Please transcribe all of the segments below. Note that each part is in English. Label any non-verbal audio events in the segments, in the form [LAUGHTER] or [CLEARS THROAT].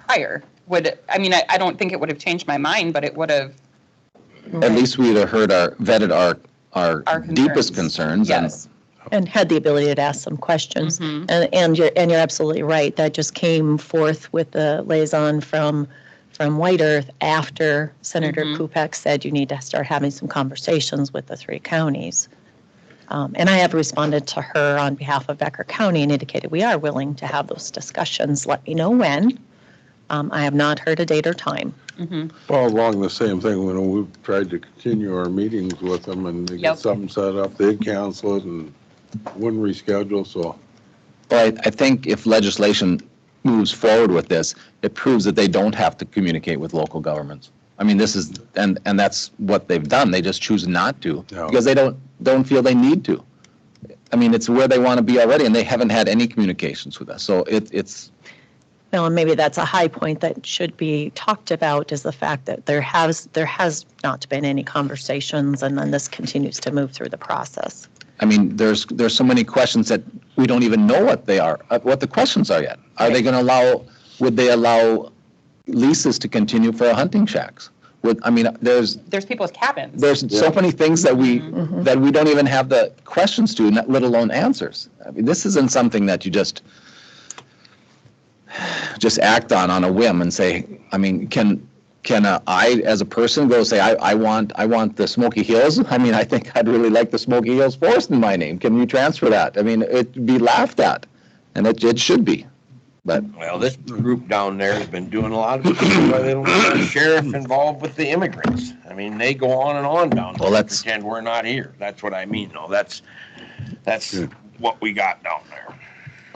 prior would, I mean, I, I don't think it would have changed my mind, but it would have, At least we'd have heard our, vetted our, Our our deepest concerns. and- yes. and had the ability to ask some questions. Mhm. And, and you're, and you're absolutely right. That just came forth with the liaison from, from White Earth after Senator Mhm. Kupek said you need to start having some conversations with the three counties. Um, and I have responded to her on behalf of Becker County and indicated we are willing to have those discussions. Let me know when. Um, I have not heard a date or time. Mhm. Well, along the same thing, when we've tried to continue our meetings with them and they Yep. get something set up, they'd cancel it and wouldn't reschedule, so. Well, I, I think if legislation moves forward with this, it proves that they don't have to communicate with local governments. I mean, this is, and, and that's what they've done. They just choose not to No. because they don't, don't feel they need to. I mean, it's where they want to be already and they haven't had any communications with us. So it, it's, Well, and maybe that's a high point that should be talked about is the fact that there has, there has not been any conversations and then this continues to move through the process. I mean, there's, there's so many questions that we don't even know what they are, uh, what the questions are yet. Are they going to allow, would they allow leases to continue for hunting shacks? Would, I mean, there's, There's people with cabins. there's so Yeah. many things that we, that we don't even have the questions to, not- let alone answers. I mean, this isn't something that you just, [SIGHS] just act on, on a whim and say, I mean, can, can uh, I, as a person, go say, I, I want, I want the Smoky Hills? [LAUGHS] I mean, I think I'd really like the Smoky Hills Forest in my name. Can you transfer that? I mean, it'd be laughed at, and it, it should be. But Well, this group down there has been doing a lot of, why they don't get the sheriff involved with the immigrants. I mean, they go on and on down Well, there, that's- pretend we're not here. That's what I mean, though. That's, that's Yeah. what we got down there.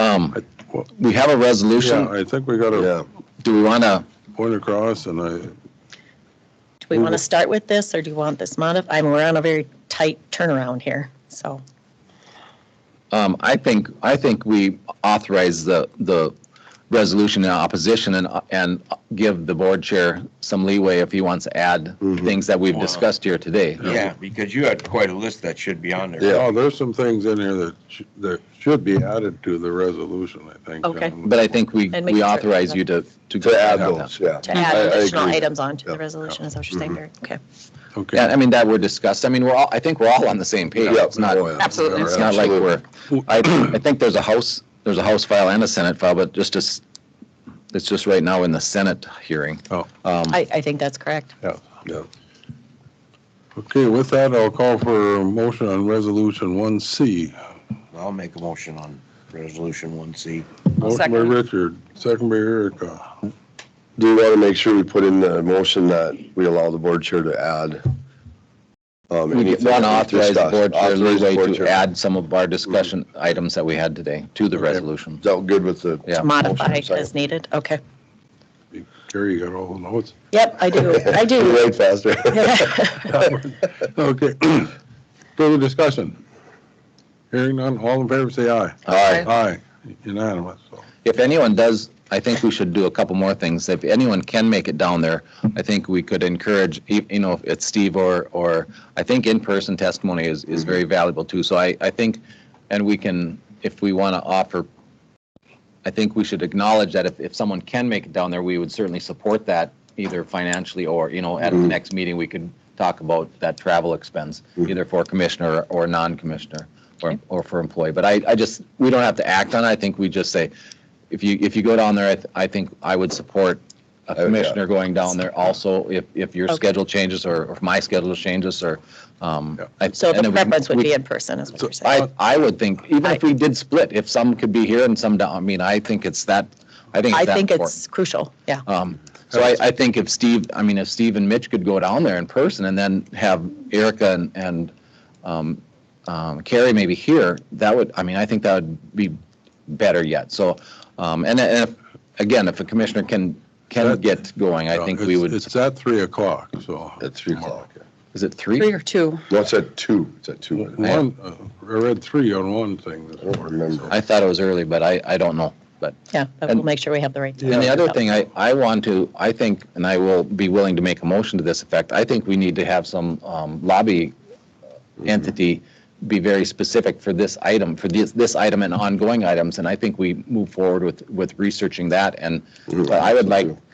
um, I- well, we have a Yeah, resolution. I think we got a Do we want to? point across and I, Do we Mm-hmm. want to start with this or do you want this modified? I mean, we're on a very tight turnaround here, so. Um, I think, I think we authorize the, the resolution in opposition and, and give the board chair some leeway if he wants to add Mm-hmm. Mhm. things that we've Wow. discussed here today. Yeah, because you had quite a list that should be on there. oh, there's some things in here that, sh- that should be added to the resolution, I think. Okay. um, But I think we, And make we sure- authorize you to, to. To add Yeah. those, yeah. To I- I add additional agree. items onto the Yeah, resolution, is that what you're saying, Mhm. Mm-hmm. Gary? Okay. Okay. Yeah, I mean, that were discussed. I mean, we're all, I think we're all on the same page. Yeah, It's not, oh, yeah. Absolutely. it's not like we're, I, I think there's a House, there's a House file and a Senate file, but just as, it's just right now in the Senate hearing. Oh. Um, I, I think that's correct. Yeah. Okay, with that, I'll call for a motion on resolution one C. I'll make a motion on resolution one C. I'll Motion by second. Richard, second by Erica. Do you want to make sure we put in the motion that we allow the board chair to add? um, We anything want to that we've authorize the board discussed? chair Authorize the leeway board to chair. add some of our discussion items that we had today to the Okay. resolution. Is that good with the? Yeah. To modify motion, second? as needed, okay. Gary, you got all the notes? Yep, I do, I You do. [LAUGHS] write faster. Okay. [CLEARS THROAT] Further discussion? Hearing none, all in favor, say aye. Aye. Aye, unanimous. So, If anyone does, I think we should do a couple more things. If anyone can make it down there, I think we could encourage, you you know, if it's Steve or, or, I think in-person testimony is, is Mm-hmm. very valuable too. So I, I think, and we can, if we want to offer, I think we should acknowledge that if, if someone can make it down there, we would certainly support that either financially or, you know, at the next meeting, we could talk about that travel expense, either for commissioner or non-commissioner or, or for employee. But I, I just, we don't have to act on it. I think we just say, if you, if you go down there, I, th- I think I would support a would, yeah. commissioner going down there also if, if your Okay. schedule changes or or if my schedule changes or, um. Yeah. I- [LAUGHS] So and the we- preference would we- be in person, is what you're saying. I, I would think, even if we did split, if some could be here and some down, I mean, I think it's that, I think I it's that think important. it's crucial, yeah. Um, So I, I think if Steve, I mean, if Steve and Mitch could go down there in person and then have Erica and, and um, um, Carrie maybe here, that would, I mean, I think that would be better yet. So, um, and, and if- again, if a commissioner can, can That- get going, I think we It's- would, Uh, It's at three o'clock, so. At three o'clock. yeah. is it Three three? or two. No, it's at two. It's at two. isn't it? One, uh, I read three on one thing this I don't morning. so- remember. I thought it was early, but I, I don't know, but. Yeah, but And- we'll make sure we have the right. And the other thing I, I want to, I think, and I will be willing to make a motion to this effect, I think we need to have some um, lobby entity be very specific for this item, for this, this item and ongoing items, and I think we move forward with, with researching that, and Mhm. I would like